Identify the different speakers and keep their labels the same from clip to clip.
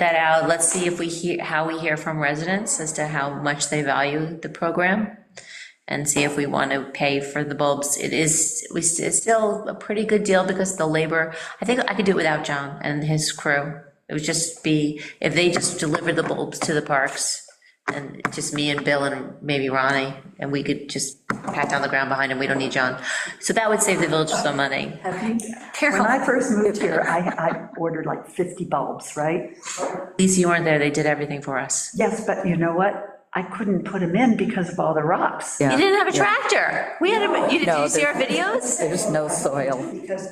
Speaker 1: that out. Let's see if we hear, how we hear from residents as to how much they value the program and see if we want to pay for the bulbs. It is, we, s- it's still a pretty good deal because the labor, I think I could do it without John and his crew. It would just be, if they just delivered the bulbs to the parks and just me and Bill and maybe Ronnie, and we could just pat down the ground behind him. We don't need John. So that would save the village some money.
Speaker 2: When I first moved here, I, I ordered like 50 bulbs, right?
Speaker 1: Lisa, you weren't there. They did everything for us.
Speaker 2: Yes, but you know what? I couldn't put them in because of all the rocks.
Speaker 1: You didn't have a tractor. We had, a. you did you see our videos?
Speaker 3: There's no soil.
Speaker 2: Because,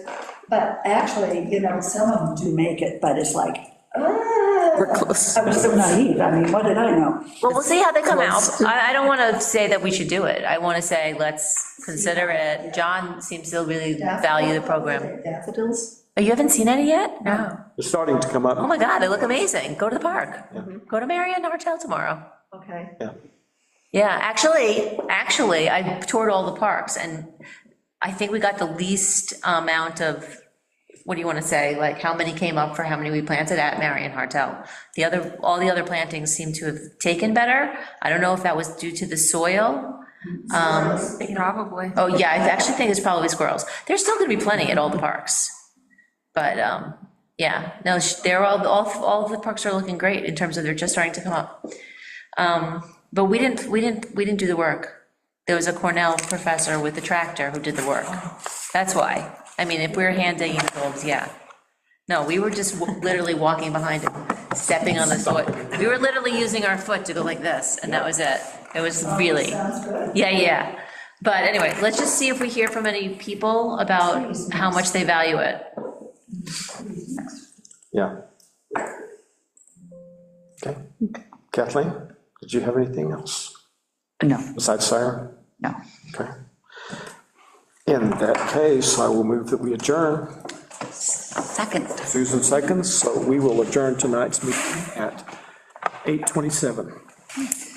Speaker 2: but actually, you know, some of them do make it, but it's like, ah.
Speaker 3: We're close.
Speaker 2: I was so naive, I mean, what did I know?
Speaker 1: Well, we'll see how they come out. I, I don't want to say that we should do it. I want to say, let's consider it. John seems to really value the program.
Speaker 2: Daffodils?
Speaker 1: Oh, you haven't seen any yet? No.
Speaker 4: They're starting to come
Speaker 1: Oh,
Speaker 4: up.
Speaker 1: my God, they look amazing. Go to the park. Go to Marion Martell tomorrow.
Speaker 2: Okay.
Speaker 4: Yeah.
Speaker 1: Yeah, actually, actually, I toured all the parks, and I think we got the least amount of, what do you want to say, like, how many came up for how many we planted at Marion Hartel. The other, all the other plantings seem to have taken better. I don't know if that was due to the soil. Um,
Speaker 5: Probably.
Speaker 1: Oh, yeah, I actually think it's probably squirrels. There's still gonna be plenty at all the parks. But, um, yeah, no, sh- they're all, all, all of the parks are looking great in terms of they're just starting to come up. Um, but we didn't, we didn't, we didn't do the work. There was a Cornell professor with the tractor who did the work. That's why. I mean, if we were hand digging the bulbs, yeah. No, we were just w- literally walking behind him, stepping on his foot. We were literally using our foot to go like this, and that was it. It was really, yeah, yeah. But anyway, let's just see if we hear from any people about how much they value it.
Speaker 4: Yeah. Okay. Kathleen, did you have anything else
Speaker 3: No,
Speaker 4: besides siren?
Speaker 3: no.
Speaker 4: Okay. In that case, I will move that we adjourn.
Speaker 3: Second.
Speaker 4: Susan seconds, so we will adjourn tonight's meeting at 8:27.